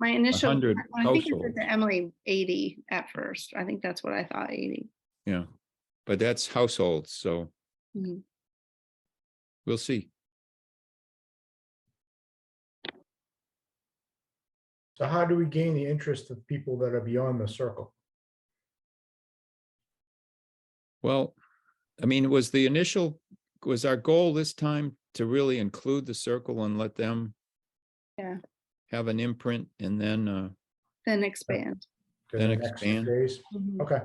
My initial, when 100 I think I said households. to Emily, eighty at first. I think that's what I thought, eighty. Yeah, but that's households, so Mm-hmm. Mhm. we'll see. So how do we gain the interest of people that are beyond the circle? Well, I mean, was the initial, was our goal this time to really include the circle and let them Yeah. have an imprint and then, uh, Then expand. to Then the next expand. phase? Okay.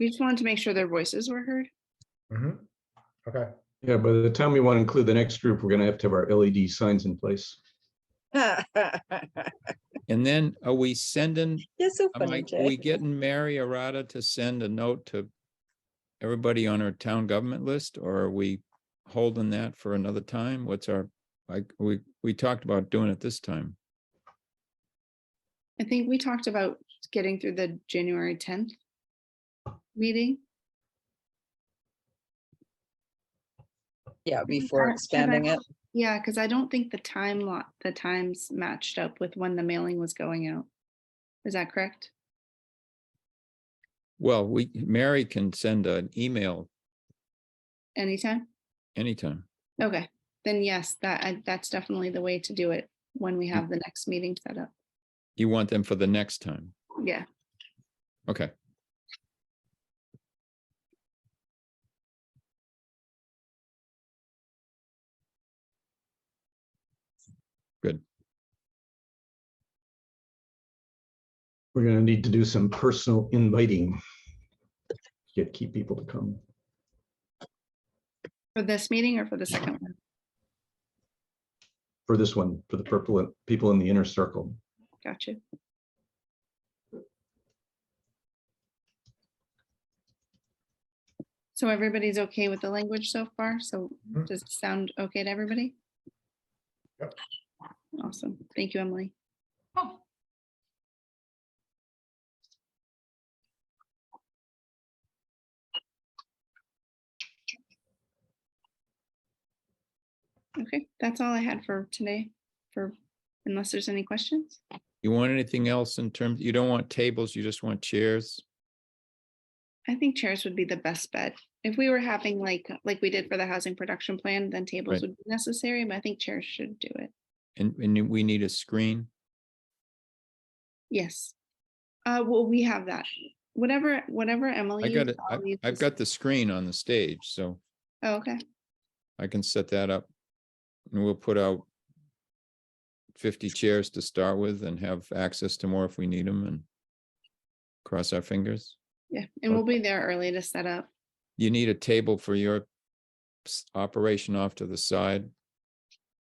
We just wanted to make sure their voices were heard. mhm, Okay. Yeah, by the time we want to include the next group, we're going to have to have our LED signs in place. You're and then are we sending, so I'm funny, like, are we Jay. getting Mary Arata to send a note to everybody on our town government list, or are we holding that for another time? What's our, like, we, we talked about doing it this time. I think we talked about getting through the January tenth meeting. Yeah, before Uh, should I- expanding it. Yeah, because I don't think the time lot, the times matched up with when the mailing was going out. Is that correct? Well, we, Mary can send an email Anytime? anytime. Okay, then yes, that, I- that's definitely the way to do it when we have the next meeting set up. You want them for the next time. Yeah, Okay. We're going to need to do some personal inviting. Get, keep people to come. for this meeting or for the second one? for this one, for the purple, people in the inner circle. Gotcha. So everybody's okay with the language so far? So Mhm. does it sound okay to everybody? Yep. Awesome. Thank you, Emily. Okay, that's all I had for today, for, unless there's any questions? You want anything else in terms, you don't want tables, you just want chairs? I think chairs would be the best bet. If we were having like, like we did for the housing production plan, then tables Right. would be necessary, but I think chairs should do it. And, and we need a screen? Yes. Uh, well, we have that. Whatever, whatever I Emily. got used, it. I- I'll use I've this- got the screen on the stage, so Oh, Okay, I can set that up. And we'll put out fifty chairs to start with and have access to more if we need them and cross our fingers. yeah, and we'll be there early to set up. You need a table for your s- operation off to the side.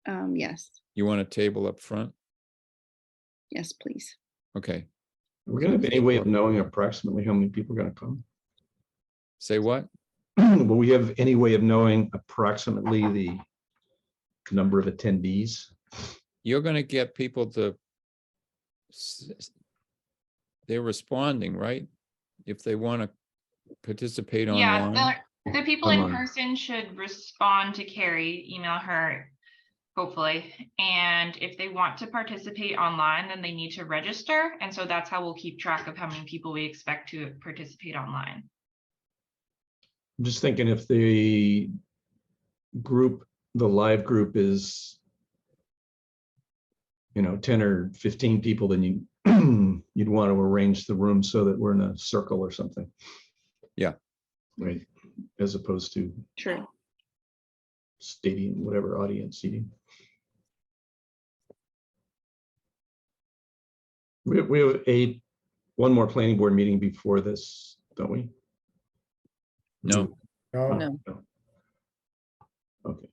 Um, yes, You want a table up front? yes, please. Okay, We're going to have any way of knowing approximately how many people are going to come? say what? Will we have any way of knowing approximately the number of attendees? you're gonna get people to. s- s- They're responding, right? If they wanna participate Yeah, online, the, the people in Online. person should respond to Carrie, email her, hopefully. And if they want to participate online, then they need to register. And so that's how we'll keep track of how many people we expect to participate online. I'm just thinking if the group, the live group is, you know, ten or fifteen people, then you, you'd want to arrange the room so that we're in a circle or something. Yeah. Right, as opposed to True. stadium, whatever audience seating. We, have- we have a, one more planning board meeting before this, don't we? no, No, No. Okay.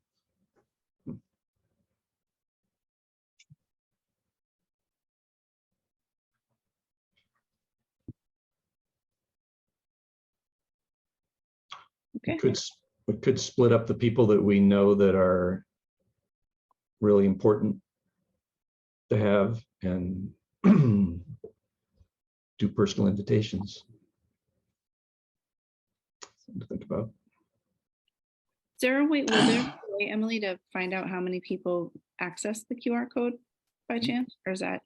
Okay, Could, s- we could split up the people that we know that are really important to have and do personal invitations. Something to Think about. Is there a way, will there be Mm. a way, Emily, to find out how many people access the QR code by chance, or is that